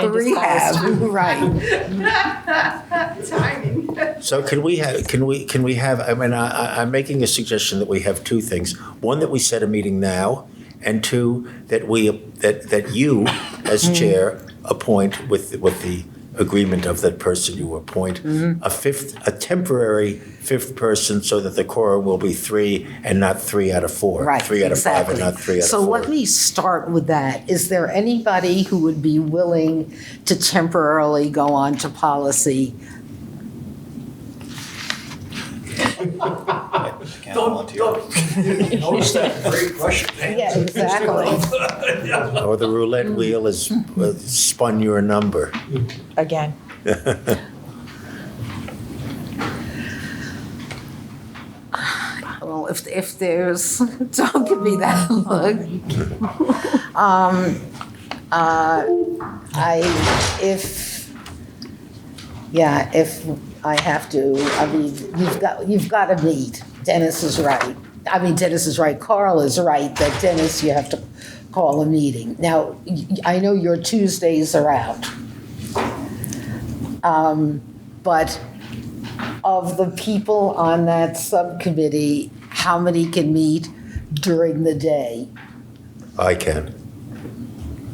The rehab, right. Timing. So can we have, can we, can we have, I mean, I, I- I'm making a suggestion that we have two things. One, that we set a meeting now, and two, that we, that, that you, as chair, appoint with, with the agreement of that person you appoint, Mm-hmm. a fifth, a temporary fifth person so that the quorum will be three and not three out of four. Right, Three out of five and exactly. not three out of four. So let me start with that. Is there anybody who would be willing to temporarily go on to policy? Oh, Notice that great Russian Yeah, exactly. Or the roulette wheel has uh, spun your number. again. Well, if, if there's, don't give me that look. Um, uh, I, if, yeah, if I have to, I mean, you've got, you've got to meet. Dennis is right. I mean, Dennis is right, Carl is right, that Dennis, you have to call a meeting. Now, y- I know your Tuesdays are out. Um, But of the people on that subcommittee, how many can meet during the day? I can.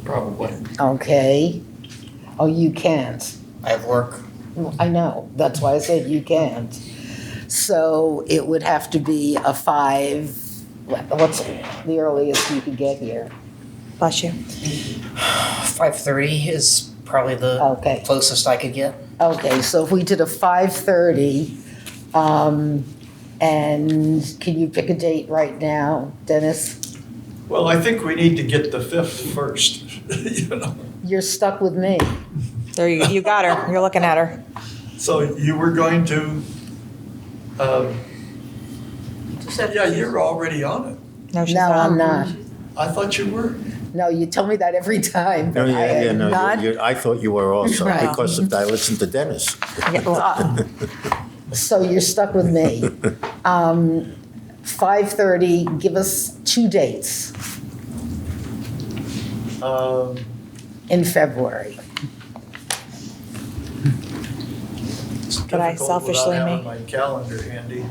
Probably. Okay? Oh, you can't. I have work. I know, that's why I said you can't. So it would have to be a five, what- what's the earliest you could get here? Bless you. Five thirty is probably the Okay, closest I could get. okay, so if we did a five-thirty, um, and can you pick a date right now, Dennis? Well, I think we need to get the fifth first, you know. You're stuck with me. There you, you got her. You're looking at her. So you were going to, um, yeah, you're already on it. No, she's No, not. I'm not. I thought you were. No, you tell me that every time. No, but I Oh, yeah, yeah, am no, not- you- you- I thought you were also, Right. because of- I listened to Dennis. Yeah, well, uh, So you're stuck with me. Um, 5:30, give us two dates Um, in February. it's But I difficult selfishly without may- having My calendar handy.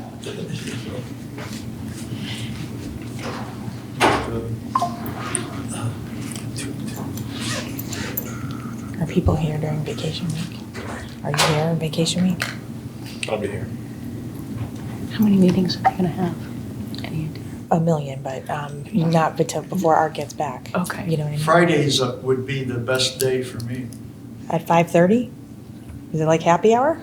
Are people here during vacation week? Are you here on vacation week? I'll be here. How many meetings are we gonna have? Any idea? A million, but um, not until before Art gets back. Okay. You know what I mean? Fridays uh, would be the best day for me, At five thirty? Is it like happy hour?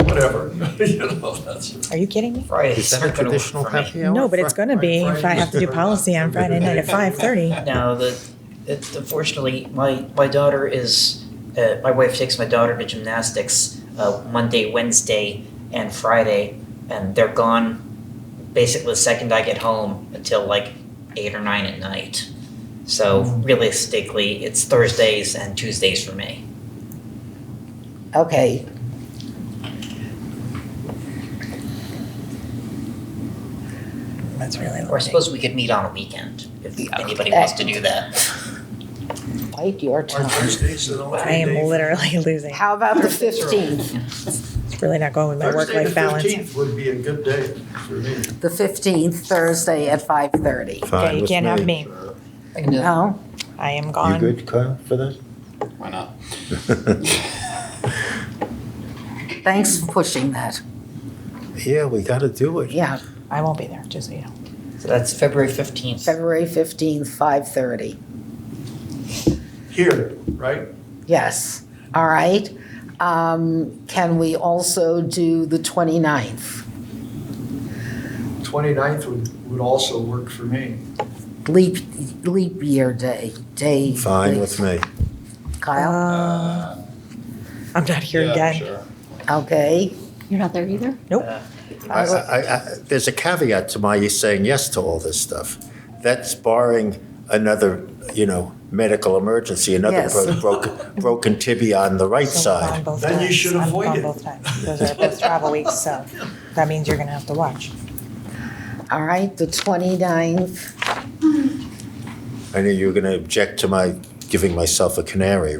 whatever, you know, that's. Are you kidding me? Friday. Is that a traditional happy hour? No, but it's gonna be if I have to do policy on Friday night at five thirty. No, the, it, unfortunately, my, my daughter is, uh, my wife takes my daughter to gymnastics, uh, Monday, Wednesday, and Friday, and they're gone basically the second I get home until like eight or nine at night. So realistically, it's Thursdays and Tuesdays for me. Okay. That's really Or I late. suppose we could meet on a weekend, if anybody wants to do that. Bite your Our tongue. Thursdays are the only I am day for- literally losing. How about the 15th? It's really not going with my Thursday the work-life balance. 15th would be a good day for me. The 15th, Thursday at 5:30. Fine Okay, you with can't have me. Oh, I can do that. No? I am You gone. good, Kyle, for that? Why not? Thanks for pushing that. Yeah, we gotta do it. Yeah, I won't be there, just so you know. So that's February fifteenth. February 15th, 5:30. Here, right? Yes, all right. Um, Can we also do the 29th? 29th would, would also work for me. Leap, leap year day, day. Fine with me. Kyle, Uh, I'm not here Yeah, again. sure. okay. You're not there either? I, I, I, there's a caveat to my saying yes to all this stuff. That's barring another, you know, medical emergency, another Yes. bro- broken, broken tibia on the right So I'm gone side. both Then you times. should I'm avoid gone it. both times. Those are both travel weeks, so that means you're gonna have to watch. All right, the 29th, I knew you were gonna object to my giving myself a canary